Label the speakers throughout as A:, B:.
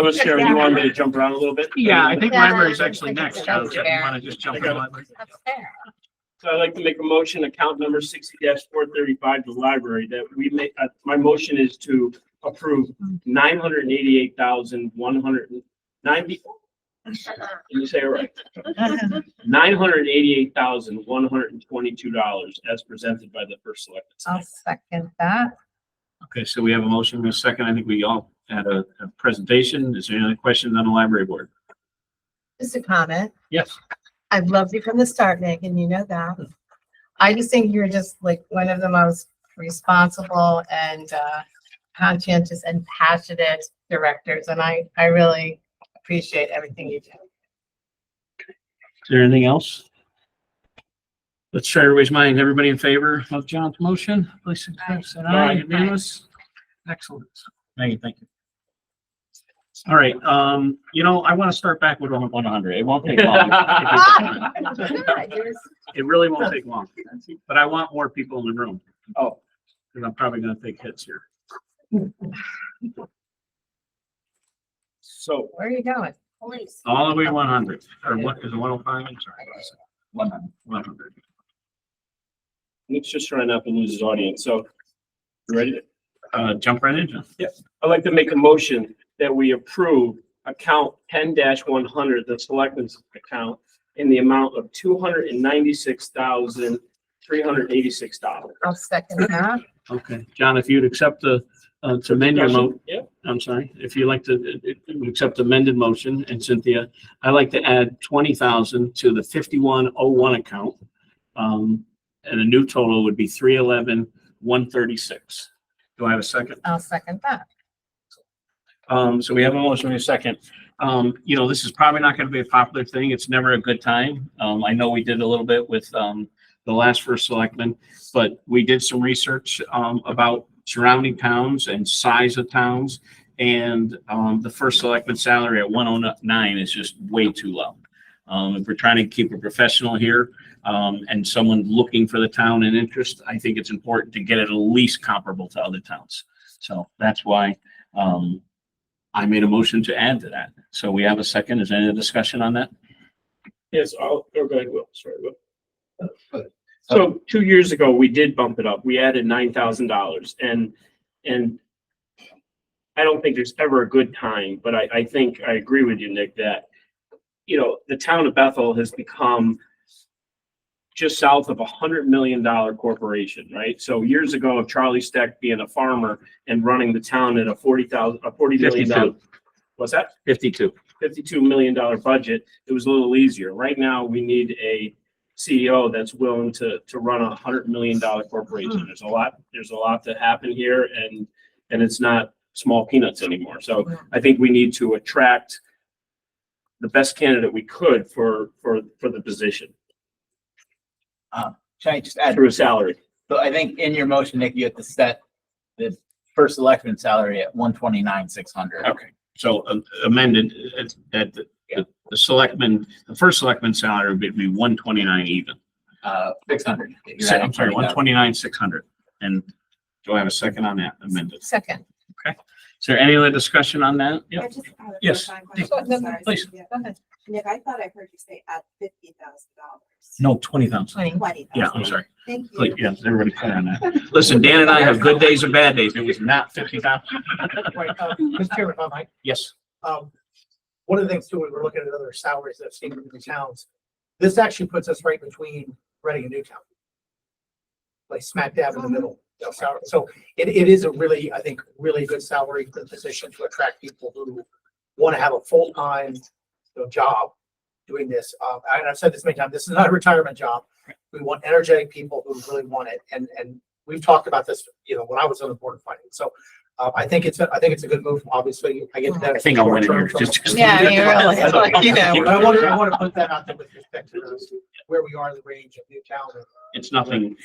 A: I was Sharon, you wanted me to jump around a little bit?
B: Yeah, I think
C: Yeah,
B: library is
C: I
B: actually
C: think it's
B: next. Charles, if you
C: upstairs.
B: want to just jump
A: I
B: in.
A: got it.
B: library.
C: upstairs.
A: So I'd like to make a motion, account number sixty four thirty-five, the library, that we make, uh, my motion is to approve nine hundred and eighty-eight thousand, one hundred and ninety, you say it right, nine hundred and eighty-eight thousand, one hundred and twenty-two dollars as presented by the first selectman.
C: I'll second that.
B: Okay, so we have a motion and a second. I think we all had a, a presentation. Is there any other questions on the library board?
C: Just a comment.
B: Yes.
C: I've loved you from the start, Megan, you know that. I just think you're just like one of the most responsible and uh, conscientious and passionate directors, and I, I really appreciate everything you do.
B: Is there anything else? Let's try everybody's mind. Everybody in favor of John's motion, please signify by saying aye.
A: Aye.
B: Unanimous? Excellent. Thank you, thank you. All right, um, you know, I want to start back with one hundred. It won't take long.
C: Ah,
B: It really won't take long, but I want more people in the room.
A: Oh.
B: Because I'm probably gonna take hits here.
A: So,
C: Where are you going?
D: Police.
B: All the way one hundred, or what, is it one oh five? I'm sorry. One hundred. One hundred.
A: let's just try not to lose his audience, so, you ready?
B: Uh, jump right in, John.
A: I'd like to make a motion that we approve account ten one hundred, the selectmen's account, in the amount of two hundred and ninety-six thousand, three hundred eighty-six dollars.
C: I'll second that.
B: Okay, John, if you'd accept the, uh, to amend your mo,
A: Yeah,
B: I'm sorry, if you'd like to, uh, uh, accept amended motion, and Cynthia, I'd like to add twenty thousand to the fifty-one oh one account. Um, and a new total would be three eleven, one thirty-six. Do I have a second?
C: I'll second that.
B: Um, so we have a motion in a second. Um, you know, this is probably not gonna be a popular thing. It's never a good time. Um, I know we did a little bit with, um, the last first selectman, but we did some research, um, about surrounding towns and size of towns. And, um, the first selectman salary at one oh nine is just way too low. Um, if we're trying to keep a professional here, um, and someone looking for the town in interest, I think it's important to get it at least comparable to other towns. So that's why, um, I made a motion to add to that. So we have a second. Is there any discussion on that?
A: yes, I'll, oh, go ahead, Will, sorry, Will. So two years ago, we did bump it up. We added nine thousand dollars and, and I don't think there's ever a good time, but I, I think I agree with you, Nick, that, you know, the town of Bethel has become just south of a hundred million dollar corporation, right? So years ago, Charlie Steck being a farmer and running the town at a forty thousand, a forty million dollar. What's that?
B: Fifty-two.
A: fifty-two million dollar budget, it was a little easier. Right now, we need a CEO that's willing to, to run a hundred million dollar corporation. There's a lot, there's a lot to happen here and, and it's not small peanuts anymore. So I think we need to attract the best candidate we could for, for, for the position
E: Can I just add,
A: through a salary.
E: so I think in your motion, Nick, you have to set the first selectman salary at one twenty-nine, six hundred.
B: Okay, so um, amended, uh, that the- the, the selectman, the first selectman salary would be one twenty-nine even.
E: Uh, six hundred.
B: Se- I'm sorry, one twenty-nine, six hundred. And do I have a second on that amended?
C: Second.
B: Is there any other discussion on that?
D: I
B: Yeah.
D: just have a
B: Yes.
D: clarifying
B: Please.
D: question.
C: No,
D: I'm sorry,
B: please.
D: Cynthia.
C: Go ahead.
D: Nick, I thought I heard you say at fifty thousand dollars.
B: No, twenty thousand.
C: Twenty.
D: Twenty
B: Yeah,
D: thousand.
B: I'm sorry.
D: Thank you.
B: Like, yeah, everybody clear on that. Listen, Dan and I have good days and bad days. It was not fifty thousand.
F: Right, uh, Mr. Chairman, if I might,
B: Yes.
F: um, one of the things too, we were looking at other salaries that have seen in the towns. This actually puts us right between Reading and Newtown. Like smack dab in the middle, you know, salary. So it, it is a really, I think, really good salary for the position to attract people who want to have a full-time, you know, job doing this. Uh, and I've said this many times, this is not a retirement job. We want energetic people who really want it. And, and we've talked about this, you know, when I was on the board of finance. So uh, I think it's, a I think it's a good move, obviously. I get that.
B: I think I'll win it here.
F: short-term-
B: Just- just-
C: Yeah, I mean, really, like, you know.
F: but I want to, I want to put that out there with respect to those, where we are in the range of Newtown. and-
B: It's nothing.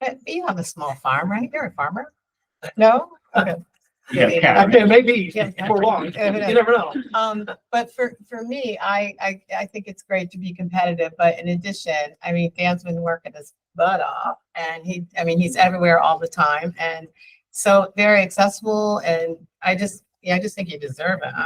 C: But you have a small farm, right? You're a farmer? No?
B: Yeah, Karen.
F: I mean, maybe
C: Yeah.
F: for long, you never know.
C: Um, but for, for me, I, I, I think it's great to be competitive, but in addition, I mean, Dan's been working his butt off and he, I mean, he's everywhere all the time and so very accessible and I just, Yeah, I just think you deserve it,